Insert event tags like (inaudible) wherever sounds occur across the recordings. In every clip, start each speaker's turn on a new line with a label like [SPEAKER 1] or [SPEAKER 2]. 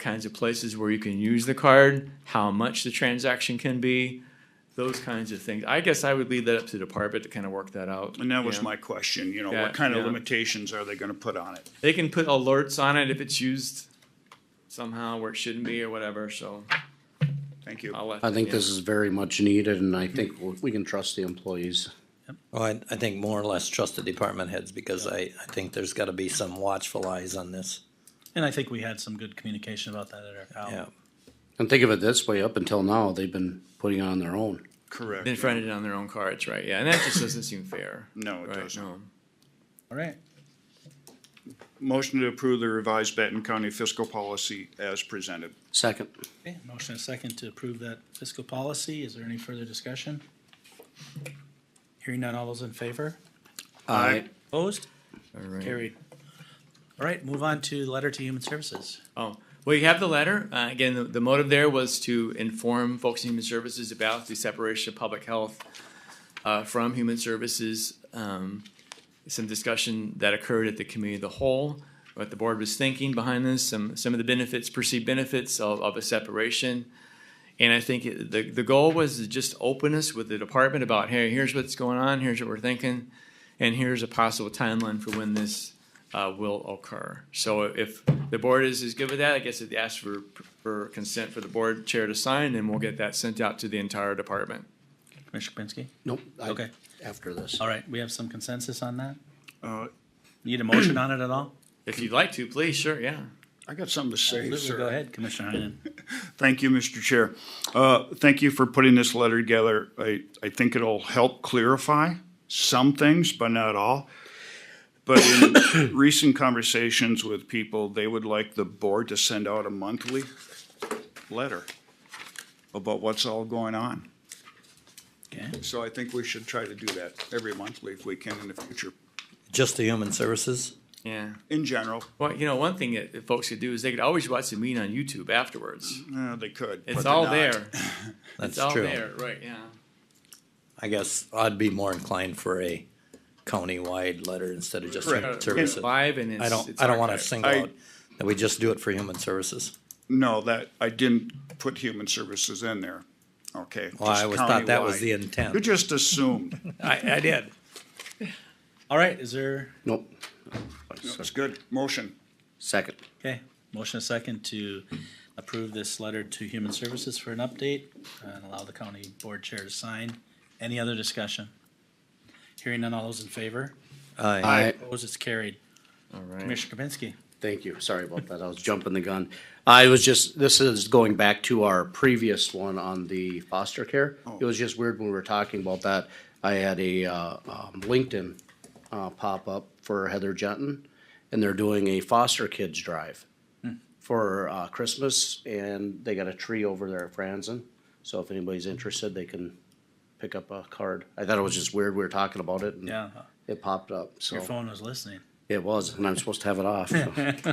[SPEAKER 1] kinds of places where you can use the card, how much the transaction can be, those kinds of things. I guess I would leave that up to the department to kind of work that out.
[SPEAKER 2] And that was
[SPEAKER 1] Yeah.
[SPEAKER 2] my question, you know,
[SPEAKER 1] Yeah,
[SPEAKER 2] what kind of
[SPEAKER 1] yeah.
[SPEAKER 2] limitations are they gonna put on it?
[SPEAKER 1] They can put alerts on it if it's used somehow where it shouldn't be or whatever, so
[SPEAKER 2] Thank you.
[SPEAKER 1] I'll let.
[SPEAKER 3] I think
[SPEAKER 1] yeah.
[SPEAKER 3] this is very much needed, and I think w- we can trust the employees.
[SPEAKER 4] Well, Oh, I, I think more or less trust the department heads because I, I think there's gotta be some watchful eyes on this.
[SPEAKER 5] And I think we had some good communication about that at our
[SPEAKER 1] Oh.
[SPEAKER 4] Yeah.
[SPEAKER 5] call.
[SPEAKER 3] And think of it this way, up until now, they've been putting it on their own.
[SPEAKER 2] Correct.
[SPEAKER 1] Been fronted on their own cards, right, yeah, and that just doesn't seem fair.
[SPEAKER 2] No, it
[SPEAKER 1] Right,
[SPEAKER 2] doesn't.
[SPEAKER 1] no.
[SPEAKER 5] All right,
[SPEAKER 2] Motion to approve the revised Benton County fiscal policy as presented.
[SPEAKER 3] Second,
[SPEAKER 5] okay, motion and second to approve that fiscal policy. Is there any further discussion? Hearing none, all those in favor?
[SPEAKER 2] Aye.
[SPEAKER 5] Opposed?
[SPEAKER 1] All right.
[SPEAKER 5] Carried. All right, move on to the letter to human services.
[SPEAKER 1] Oh, well, you have the letter. Uh, again, the, the motive there was to inform folks in human services about the separation of public health uh, from human services. Um, some discussion that occurred at the committee of the whole, what the board was thinking behind this, some some of the benefits, perceived benefits of, of a separation. And I think it- the the goal was to just openness with the department about hey, here's what's going on, here's what we're thinking, and here's a possible timeline for when this uh, will occur. So if the board is, is good with that, I guess it asks for, for consent for the board chair to sign, and we'll get that sent out to the entire department.
[SPEAKER 5] Commissioner Kapinski?
[SPEAKER 3] nope, I-
[SPEAKER 5] Okay. Uh,
[SPEAKER 3] after this.
[SPEAKER 5] All right, we have some consensus on that?
[SPEAKER 2] Uh,
[SPEAKER 5] Need a motion on it at all?
[SPEAKER 1] If you'd like to, please, sure, yeah.
[SPEAKER 2] I got something to say,
[SPEAKER 5] Absolutely.
[SPEAKER 2] sir.
[SPEAKER 5] Go ahead, Commissioner
[SPEAKER 2] (laughs)
[SPEAKER 5] Heinen.
[SPEAKER 2] Thank you, Mr. Chair. Uh, Thank you for putting this letter together. I, I think it'll help clarify some things, but not all. But
[SPEAKER 1] (coughs)
[SPEAKER 2] in recent conversations with people, they would like the board to send out a monthly letter about what's all going on.
[SPEAKER 5] Okay,
[SPEAKER 2] So I think we should try to do that every monthly if we can in the future,
[SPEAKER 4] Just the human services?
[SPEAKER 1] Yeah.
[SPEAKER 2] in general.
[SPEAKER 1] Well, you know, one thing that that folks could do is they could always watch the meeting on YouTube afterwards.
[SPEAKER 2] Uh, they could. but
[SPEAKER 1] It's
[SPEAKER 2] they're
[SPEAKER 1] all
[SPEAKER 2] not.
[SPEAKER 1] there. It's
[SPEAKER 4] That's
[SPEAKER 1] all
[SPEAKER 4] true.
[SPEAKER 1] there, right, yeah.
[SPEAKER 4] I guess I'd be more inclined for a county-wide letter instead of just human
[SPEAKER 2] Correct.
[SPEAKER 1] It's
[SPEAKER 4] services.
[SPEAKER 1] live and it's.
[SPEAKER 4] I don't,
[SPEAKER 1] it's
[SPEAKER 4] I don't wanna
[SPEAKER 1] archived.
[SPEAKER 4] single
[SPEAKER 2] I-
[SPEAKER 4] out, that we just do it for human services.
[SPEAKER 2] No, that, I didn't put human services in there. Okay.
[SPEAKER 4] Well, I
[SPEAKER 2] just
[SPEAKER 4] always thought that was
[SPEAKER 2] countywide.
[SPEAKER 4] the
[SPEAKER 2] You
[SPEAKER 4] intent.
[SPEAKER 2] just assumed.
[SPEAKER 4] (laughs) I, I did.
[SPEAKER 5] all right, is there,
[SPEAKER 3] Nope,
[SPEAKER 2] That's good. Motion.
[SPEAKER 3] second.
[SPEAKER 5] okay, motion a second to approve this letter to Human Services for an update and allow the county board chair to sign. Any other discussion? Hearing none, all those in favor?
[SPEAKER 4] Aye.
[SPEAKER 5] Opposed, it's carried.
[SPEAKER 1] All right.
[SPEAKER 5] Commissioner Kapinski?
[SPEAKER 3] Thank you. Sorry about that. I was jumping the gun. I was just, this is going back to our previous one on the foster care.
[SPEAKER 5] Oh.
[SPEAKER 3] It was just weird when we were talking about that. I had a, uh, um, LinkedIn, uh, pop up for Heather Jenton, and they're doing a foster kids drive
[SPEAKER 5] Hmm.
[SPEAKER 3] for, uh, Christmas, and they got a tree over there at Franzen. So if anybody's interested, they can pick up a card. I thought it was just weird. We were talking about it, and
[SPEAKER 5] Yeah,
[SPEAKER 3] it popped up, so.
[SPEAKER 5] your phone was listening.
[SPEAKER 3] It was, and I'm supposed to have it off.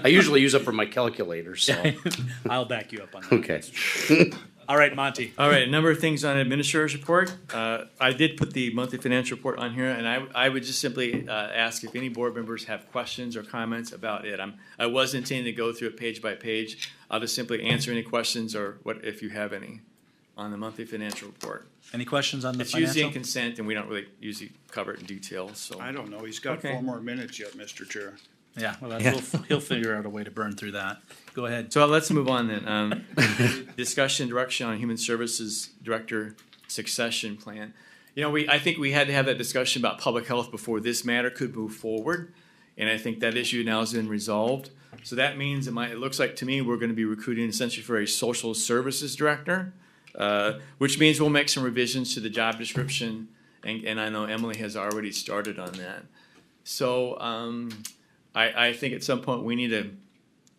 [SPEAKER 3] I usually use it for my calculator, so,
[SPEAKER 5] I'll back you up on that.
[SPEAKER 3] okay.
[SPEAKER 5] All right, Monty.
[SPEAKER 1] All right, a number of things on administrator's report. Uh, I did put the monthly financial report on here, and I, I would just simply, uh, ask if any board members have questions or comments about it. I'm, I was intending to go through it page by page. I'll just simply answer any questions or what, if you have any, on the monthly financial report.
[SPEAKER 5] Any questions on the
[SPEAKER 1] It's usually in
[SPEAKER 5] financial?
[SPEAKER 1] consent, and we don't really usually cover it in detail, so.
[SPEAKER 2] I don't know. He's got
[SPEAKER 1] Okay.
[SPEAKER 2] four more minutes yet, Mr. Chair.
[SPEAKER 5] Yeah, well, that's, he'll, he'll figure out a way to burn through that. Go ahead.
[SPEAKER 1] So let's move on then. Um, discussion direction on human services director succession plan. You know, we, I think we had to have that discussion about public health before this matter could move forward. And I think that issue now has been resolved. So that means it might, it looks like to me, we're gonna be recruiting essentially for a social services director. Uh, which means we'll make some revisions to the job description. And, and I know Emily has already started on that. So, um, I, I think at some point we need to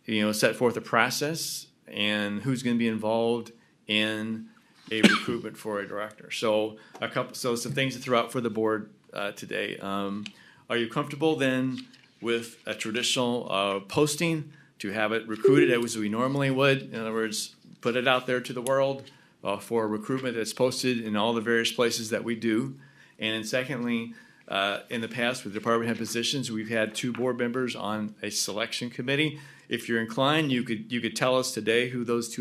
[SPEAKER 1] you know, set forth a process and who's going to be involved in a recruitment for a director. So a couple, so some things to throw out for the board uh, today. Um, are you comfortable then with a traditional uh, posting to have it recruited as we normally would? In other words, put it out there to the world uh, for recruitment that's posted in all the various places that we do. And then secondly, uh, in the past with department head positions, we've had two board members on a selection committee. If you're inclined, you could, you could tell us today who those two